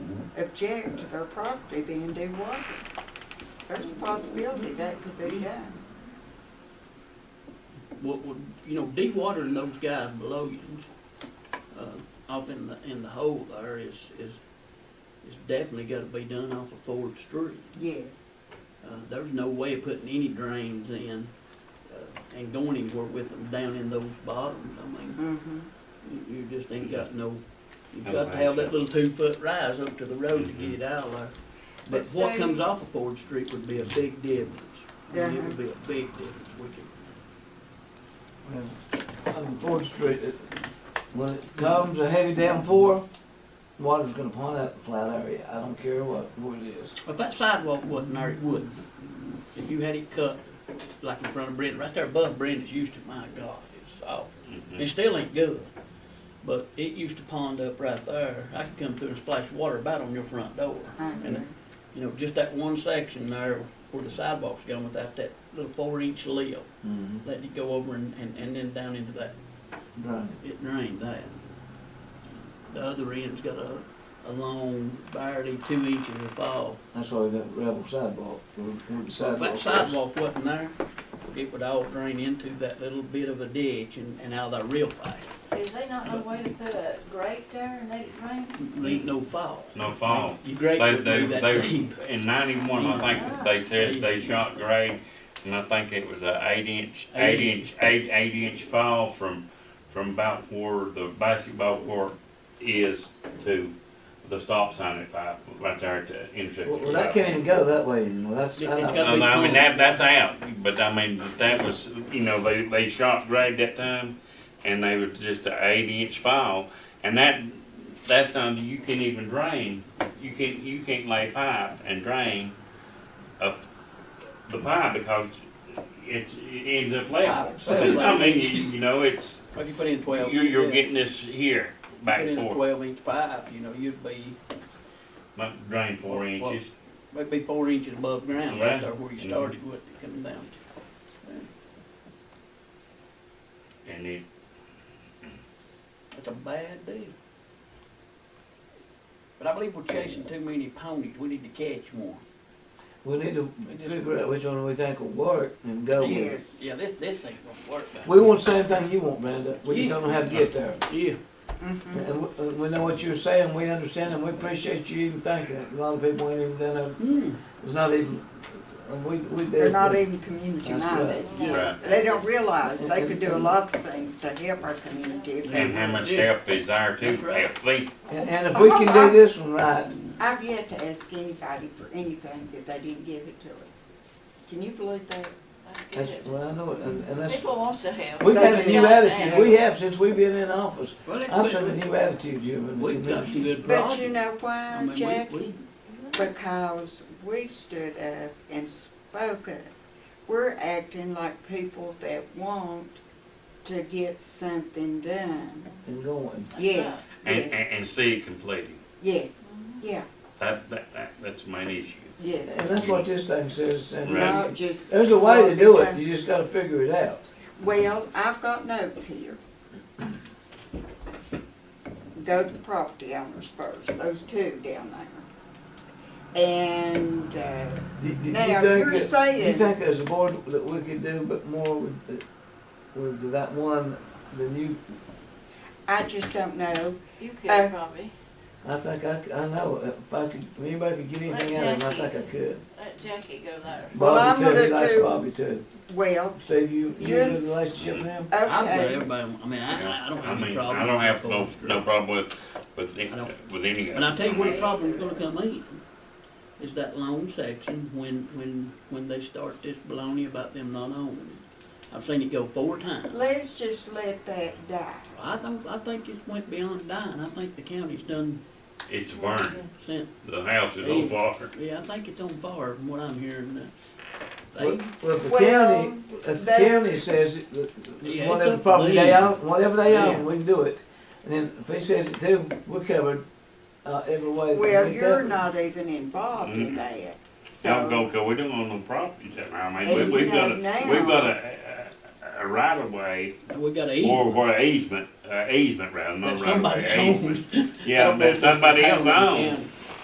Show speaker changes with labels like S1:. S1: object to their property being dewatered. There's a possibility that could be done.
S2: what would, you know, de-watering those guys below you, uh, off in the, in the hole there is, is, is definitely gotta be done off of Ford Street.
S1: Yes,
S2: Uh, there's no way of putting any drains in, uh, and going anywhere with them down in those bottoms, I mean,
S1: mm-hmm,
S2: you, you just ain't got no, you've
S3: No
S2: got to have that
S3: way.
S2: little two-foot rise up to the road to get it out of there. But
S1: But
S2: what
S1: say-
S2: comes off of Ford Street would be a big difference, I mean, it
S1: Uh-huh.
S2: would be a big difference, we could
S4: And On Ford Street, it- when it comes a heavy downpour, water's gonna pond out the flat area. I don't care what, what it is.
S2: If that sidewalk wasn't there, it wouldn't. If you had it cut, like in front of Brenda, right there above Brenda's used to, my God, it's awful. It
S3: Mm-hmm.
S2: still ain't good, but it used to pond up right there. I could come through and splash water about on your front door.
S1: I
S2: And,
S1: agree.
S2: You know, just that one section there where the sidewalk's gone without that little four inch lip,
S4: Mm-hmm.
S2: letting it go over and, and, and then down into that,
S4: Right.
S2: it drained that. The other end's got a, a long, barely two inches of fall.
S4: That's why we got gravel sidewalk, or, or the
S2: If
S4: sidewalk.
S2: that sidewalk wasn't there, it would all drain into that little bit of a ditch and, and out of there real fast.
S5: Is they not no way to put a grate there and let it drain?
S2: There ain't no fall.
S3: No fall.
S2: Your grate
S3: They,
S2: wouldn't
S3: they,
S2: be that
S3: they,
S2: deep.
S3: in ninety-one, I think that they said they shot grade, and I think it was a eight-inch,
S2: Eight
S3: eight-inch, eight, eight-inch fall from, from about where the basketball court is to the stop sign at five, right there at the intersection.
S4: Well,
S3: of
S4: well, that
S3: five.
S4: can't even go that way anymore. That's, I
S2: It- it's
S4: don't.
S2: got-
S3: No, no, Um, I mean, that, that's out, but I mean, that was, you know, they, they shot grade that time, and they were just a eight-inch file, and that, that's not, you can't even drain, you can't, you can't lay pipe and drain up the pipe because it, it ends up level.
S2: Pipe, so it's
S3: I mean,
S2: like-
S3: you, you know, it's,
S2: If you put in twelve.
S3: you're, you're
S2: yeah,
S3: getting this here,
S2: Put
S3: back
S2: in a
S3: four,
S2: twelve inch pipe, you know, you'd be,
S3: might drain four
S2: Well,
S3: inches.
S2: might be four inches above ground right
S3: Yeah.
S2: there where you
S3: Yeah.
S2: started, wouldn't it, coming down to?
S3: And it,
S2: That's a bad deal. But I believe we're chasing too many ponies. We need to catch one.
S4: We need to figure out which one we think will work and go with it.
S1: yes.
S2: Yeah, this, this ain't gonna work. out.
S4: We want the same thing you want, Brenda. We just
S2: Yeah.
S4: don't know how to get there.
S2: Yeah.
S1: Mm-hmm.
S4: And we, uh, we know what you're saying, we understand, and we appreciate you even thinking it. A lot of people ain't even done it,
S2: Hmm.
S4: it's not even, uh, we, we did.
S1: They're not even community
S4: That's right.
S1: minded, yes. They don't realize they could do a lot of things to help our community if
S3: and how
S1: they.
S3: much help is there too,
S2: That's right.
S3: help fleet.
S4: And and if we can do this one right,
S1: I've yet to ask anybody for anything that they didn't give it to us. Can you believe that?
S4: that's, well, I know it, and, and that's,
S5: People wants to help.
S4: we've had a new attitude, we
S5: Yeah.
S4: have since we've been in office.
S2: Well, it-
S4: I've seen a new attitude, you have.
S2: We've got some good
S1: But you
S2: projects.
S1: know
S2: I
S1: why,
S2: mean, we-
S1: Jackie?
S2: we-
S1: Because we've stood up and spoken. We're acting like people that want to get something done.
S4: And going.
S1: Yes,
S3: And,
S1: yes,
S3: and, and see it completed.
S1: yes, yeah,
S3: That, that, that, that's my issue.
S4: And
S1: yes.
S4: that's what this thing says, and
S3: Right.
S1: Not just.
S4: there's a way to do it, you just gotta figure it out.
S1: Well, I've got notes here. Go to the property owners first, those two down there. And, uh,
S4: Do- do you
S1: Now,
S4: think
S1: you're
S4: that- do You
S1: saying-
S4: think as a board that we could do but more with, the- with that one than you,
S1: I just don't know,
S5: You
S1: Uh,
S5: could probably,
S4: I think I, c- I know, if I could, if anybody could get anything out of it, I think I could.
S5: let Jackie go there.
S1: Well, I'm
S4: Bobby too,
S1: gonna
S4: he likes
S1: do-
S4: Bobby too.
S1: well,
S4: Steve, you, you in a
S1: Yes.
S4: relationship with him?
S2: I've got
S1: okay,
S2: everybody, I mean, I, I don't have any
S3: mean,
S2: problem.
S3: I don't have
S2: with
S3: no,
S2: Ford
S3: no
S2: Street.
S3: problem with, with,
S2: I don't-
S3: it- with any. of
S2: And I'll tell you
S3: it.
S2: where the problem's gonna come in, is that long section when, when, when they start this baloney about them not owning it. I've seen it go four times.
S1: let's just let that die.
S2: I don't, I think it went beyond dying. I think the county's done
S3: It's burned.
S2: sent,
S3: The house is on fire.
S2: yeah, I think it's on fire from what I'm hearing. uh,
S4: Well,
S2: They,
S4: well, if the
S1: Well,
S4: county, if the
S1: that's-
S4: county says, it, that-
S2: Yeah,
S4: that
S2: it's
S4: whatever
S2: up to
S4: property they
S2: them.
S4: own, whatever they
S2: Yeah.
S4: own, we can do it. And then if he says it too, we're covered, uh, every way. that
S1: Well,
S4: we
S1: you're
S4: cover.
S1: not even involved in that,
S3: Y'all go,
S1: so.
S3: cause we don't own no properties that I mean,
S1: And
S3: we,
S1: you
S3: we've got
S1: know
S3: a,
S1: now-
S3: we've got a, a, a right of way
S2: we got a
S3: or,
S2: easement
S3: or easement, uh, easement rather,
S2: that
S3: not right of
S2: somebody
S3: way, easement.
S2: owns.
S3: Yeah, that somebody else owns.